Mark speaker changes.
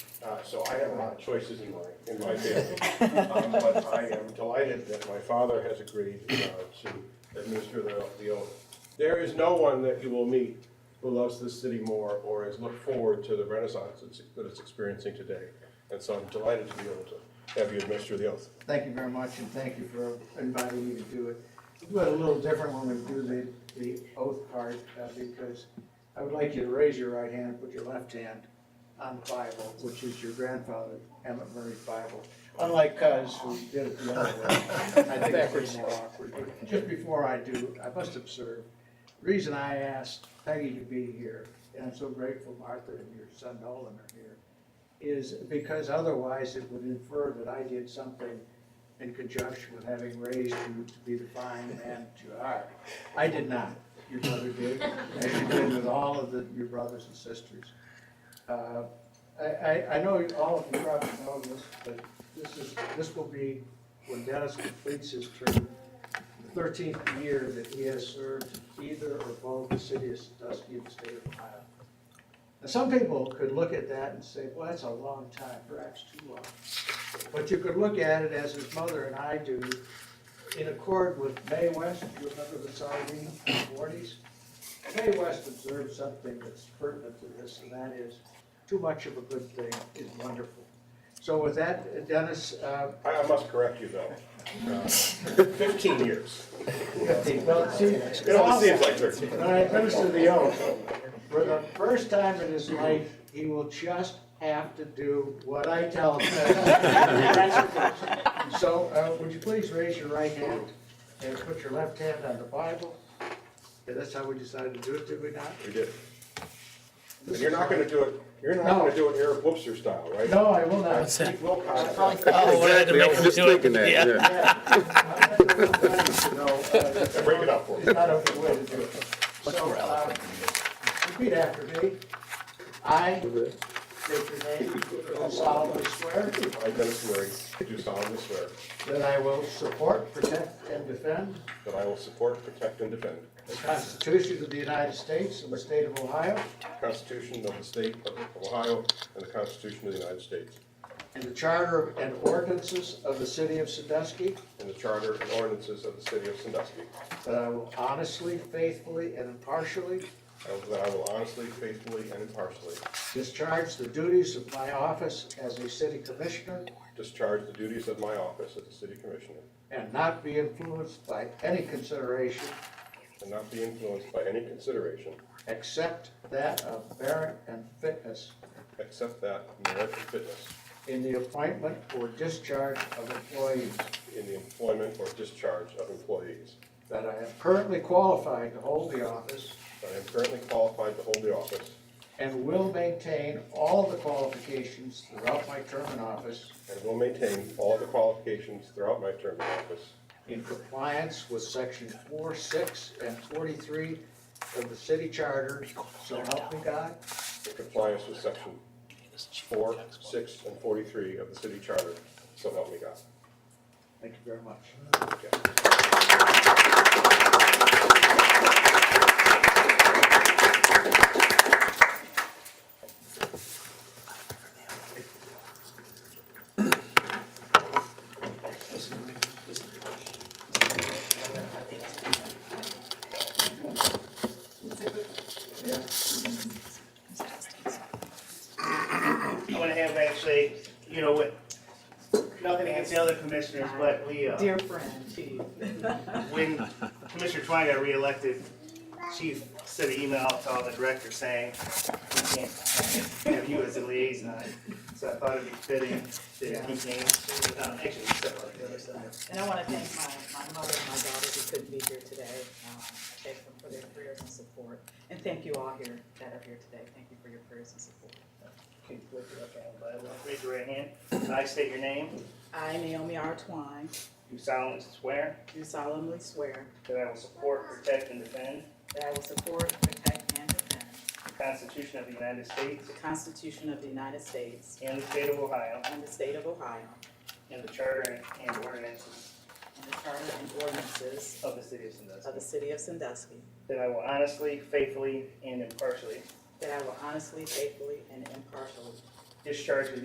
Speaker 1: Uh, so I have a lot of choices in my, in my family. Um, But I am delighted that my father has agreed uh, to administer the, the oath. There is no one that you will meet who loves this city more or has looked forward to the renaissance it's- that it's experiencing today. And so I'm delighted to be able to have you administer the oath.
Speaker 2: Thank you very much, and thank you for inviting me to do it. We do it a little different when we do the, the oath part, uh, because I would like you to raise your right hand, put your left hand on the Bible, which is your grandfather, Emmett Murray's Bible. Unlike Cuz, who did it the other way, I think it's pretty more awkward. But Just before I do, I must observe, the reason I asked Peggy to be here, and I'm so grateful Martha and your son Nolan are here, is because otherwise it would infer that I did something in conjunction with having raised you to be the fine man that you are. I did not. Your brother did, as you did with all of the, your brothers and sisters. Uh, I, I, I know all of you probably know this, but this is, this will be, when Dennis completes his term, the thirteenth year that he has served either or both the city of Sandusky and the state of Ohio. Now, some people could look at that and say, well, that's a long time, perhaps too long. But you could look at it as his mother and I do, in accord with Mae West, you remember the sardine in the forties? Mae West observed something that's pertinent to this, and that is, too much of a good thing is wonderful. So with that, Dennis, uh,
Speaker 1: I I must correct you though. Uh, Fifteen years.
Speaker 2: fifteen, well, it seems.
Speaker 1: It always seems like thirteen.
Speaker 2: When I administer the oath, for the first time in his life, he will just have to do what I tell him. So, uh, would you please raise your right hand and put your left hand on the Bible? Yeah, that's how we decided to do it, did we not?
Speaker 1: We did. And you're not gonna do it, you're not gonna do it Eric Webster style, right?
Speaker 2: No, I will not.
Speaker 1: Pete Wilcox.
Speaker 3: Oh, what I had to
Speaker 4: Exactly, I
Speaker 3: make
Speaker 4: was
Speaker 3: him
Speaker 4: just
Speaker 3: do it.
Speaker 4: thinking that,
Speaker 3: Yeah.
Speaker 4: yeah.
Speaker 2: uh,
Speaker 1: Break it up for me.
Speaker 2: It's not a way to do it. So, uh, repeat after me. I, state your name, do solemnly swear
Speaker 1: I, Dennis swearing, do solemnly swear
Speaker 2: that I will support, protect, and defend
Speaker 1: that I will support, protect, and defend
Speaker 2: the Constitution of the United States and the state of Ohio,
Speaker 1: the Constitution of the State of Ohio and the Constitution of the United States,
Speaker 2: and the charter and ordinances of the city of Sandusky,
Speaker 1: and the Charter and ordinances of the City of Sandusky,
Speaker 2: that I will honestly, faithfully, and impartially
Speaker 1: and that I will honestly, faithfully, and impartially
Speaker 2: discharge the duties of my office as a city commissioner
Speaker 1: discharge the duties of my office as a City Commissioner,
Speaker 2: and not be influenced by any consideration
Speaker 1: and not be influenced by any consideration
Speaker 2: except that of merit and fitness
Speaker 1: except that of merit and fitness
Speaker 2: in the appointment or discharge of employees,
Speaker 1: in the employment or discharge of employees.
Speaker 2: that I am currently qualified to hold the office
Speaker 1: I am currently qualified to hold the office
Speaker 2: and will maintain all the qualifications throughout my term in office
Speaker 1: and will maintain all the qualifications throughout my term in office
Speaker 2: in compliance with section four, six, and forty-three of the city charter, so help me God.
Speaker 1: in compliance with section four, six, and forty-three of the city charter, so help me God.
Speaker 2: Thank you very much.
Speaker 5: I want to have actually, you know, what, nothing against the other commissioners, but we, uh,
Speaker 6: Dear friend.
Speaker 5: when Commissioner Twine got reelected, she sent an email out to all the directors saying, we can't have you as a liaison. So I thought it'd be fitting that he came, um, actually, step on the other side.
Speaker 6: And I want to thank my, my mother and my daughter who couldn't be here today. Um, I thank them for their prayers and support. And thank you all here that are here today. Thank you for your prayers and support.
Speaker 5: Okay, but Raise your right hand. I state your name.
Speaker 6: I, Naomi R. Twine,
Speaker 5: You solemnly swear
Speaker 6: do solemnly swear
Speaker 5: that I will support, protect, and defend
Speaker 6: that I will support, protect, and defend
Speaker 5: the Constitution of the United States
Speaker 6: the Constitution of the United States
Speaker 5: and the state of Ohio
Speaker 6: and the state of Ohio
Speaker 5: and the charter and ordinances
Speaker 6: and the charter and ordinances
Speaker 5: Of the city of
Speaker 6: of
Speaker 5: Sandusky.
Speaker 6: the city of Sandusky,
Speaker 5: That I will honestly, faithfully, and impartially
Speaker 6: that I will honestly, faithfully, and impartially
Speaker 5: discharge the